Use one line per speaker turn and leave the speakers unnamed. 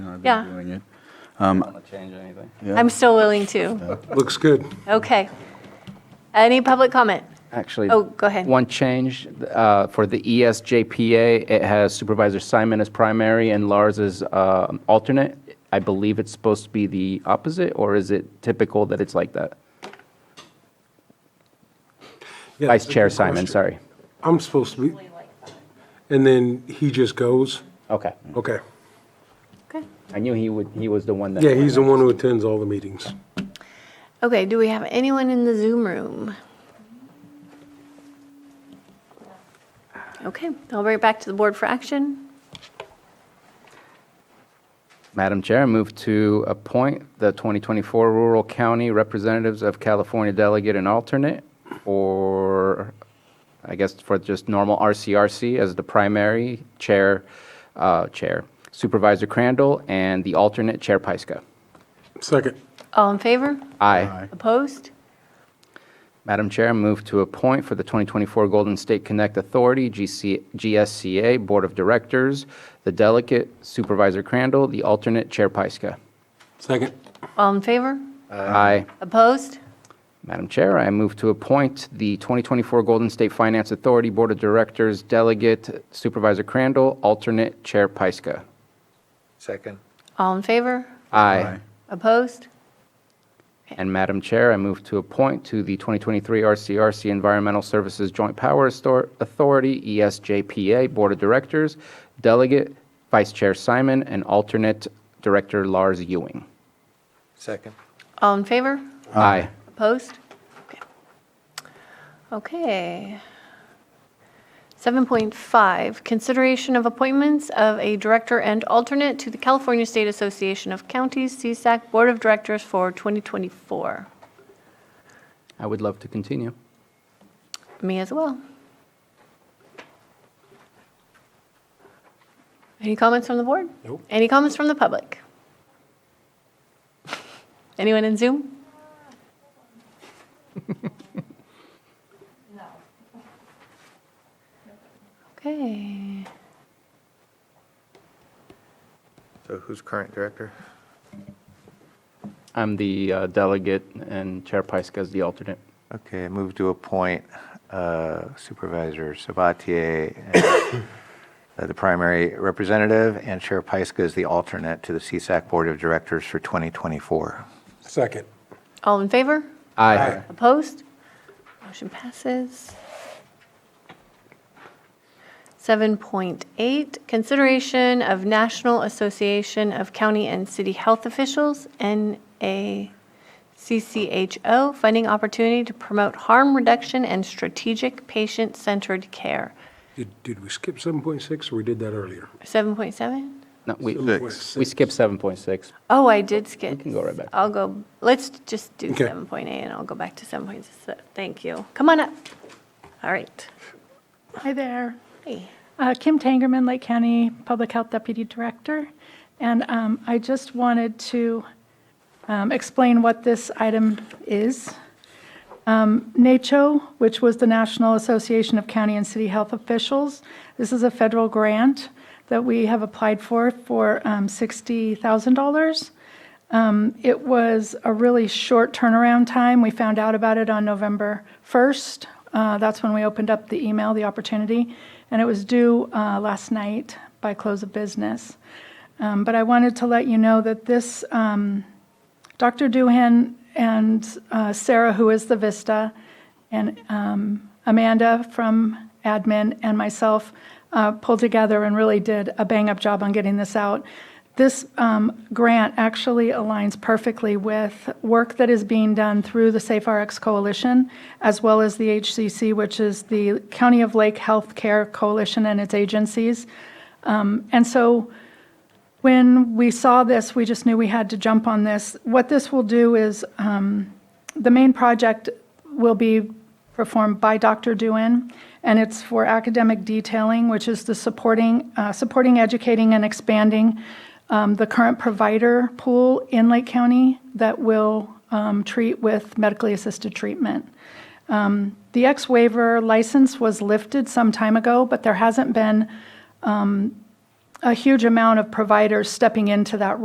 I've
Yeah.
been doing it.
want to change anything.
I'm still willing to.
Looks good.
Okay. Any public comment?
Actually.
Oh, go ahead.
One change uh, for the ESJPA, it has Supervisor Simon as primary and Lars as um, alternate. I believe it's supposed to be the opposite, or is it typical that it's like that?
Yeah,
Vice
that's a
Chair
good
Simon,
question.
sorry.
I'm supposed to be, and then he just goes?
Okay.
Okay.
Okay.
I knew he would, he was the one that.
Yeah, he's the one who attends all the meetings.
Okay, do we have anyone in the Zoom room? Okay, I'll bring it back to the board for action.
Madam Chair, I move to appoint the 2024 Rural County Representatives of California Delegate and Alternate, or I guess for just normal RCRC as the primary chair, uh, chair Supervisor Crandall, and the alternate Chair Pyska.
Second.
All in favor?
Aye.
Opposed?
Madam Chair, I move to appoint for the 2024 Golden State Connect Authority, GC GSCA Board of Directors, the delegate Supervisor Crandall, the alternate Chair Pyska.
Second.
All in favor?
Aye.
Opposed?
Madam Chair, I move to appoint the 2024 Golden State Finance Authority Board of Directors Delegate Supervisor Crandall, alternate Chair Pyska.
Second.
All in favor?
Aye.
Opposed?
And Madam Chair, I move to appoint to the 2023 RCRC Environmental Services Joint Power Astor- Authority E ESJPA Board of Directors Delegate Vice Chair Simon and alternate Director Lars Ewing.
Second.
All in favor?
Aye.
Opposed? Okay. Okay. 7.5, consideration of appointments of a director and alternate to the California State Association of Counties, CSAC Board of Directors for 2024.
I would love to continue.
Me as well. Any comments from the board?
Nope.
Any comments from the public? Anyone in Zoom? No. Okay.
So who's current director?
I'm the uh, delegate and Chair Pyska is the alternate.
Okay, I move to appoint uh, Supervisor Sabatier as, uh, the primary representative and Chair Pyska is the alternate to the CSAC Board of Directors for 2024.
Second.
All in favor?
Aye.
Opposed? Motion passes. 7.8, consideration of National Association of County and City Health Officials, NACCHO, funding opportunity to promote harm reduction and strategic patient-centered care.
Did, did we skip 7.6 or we did that earlier?
7.7?
No, we,
Six.
we skipped 7.6.
Oh, I did skip.
can go right back.
I'll go, let's just do
Okay.
7.8, and I'll go back to 7.6. Thank you. Come on up. All right.
Hi there.
Hey.
Uh, Kim Tangerman, Lake County Public Health Deputy Director. And um, I just wanted to um, explain what this item is. Um, NACHO, which was the National Association of County and City Health Officials. This is a federal grant that we have applied for, for um, $60,000. Um, It was a really short turnaround time. We found out about it on November 1st. Uh, That's when we opened up the email, the opportunity, and it was due uh, last night by close of business. Um, But I wanted to let you know that this, um, Dr. Doohan and uh, Sarah, who is the Vista, and um, Amanda from admin, and myself uh, pulled together and really did a bang-up job on getting this out. This um, grant actually aligns perfectly with work that is being done through the Safe RX Coalition, as well as the HCC, which is the County of Lake Healthcare Coalition and its agencies. Um, And so when we saw this, we just knew we had to jump on this. What this will do is, um, the main project will be performed by Dr. Dewin, and it's for academic detailing, which is the supporting, uh, supporting, educating, and expanding um, the current provider pool in Lake County that will um, treat with medically assisted treatment. Um, The ex waiver license was lifted some time ago, but there hasn't been a huge amount of providers stepping into that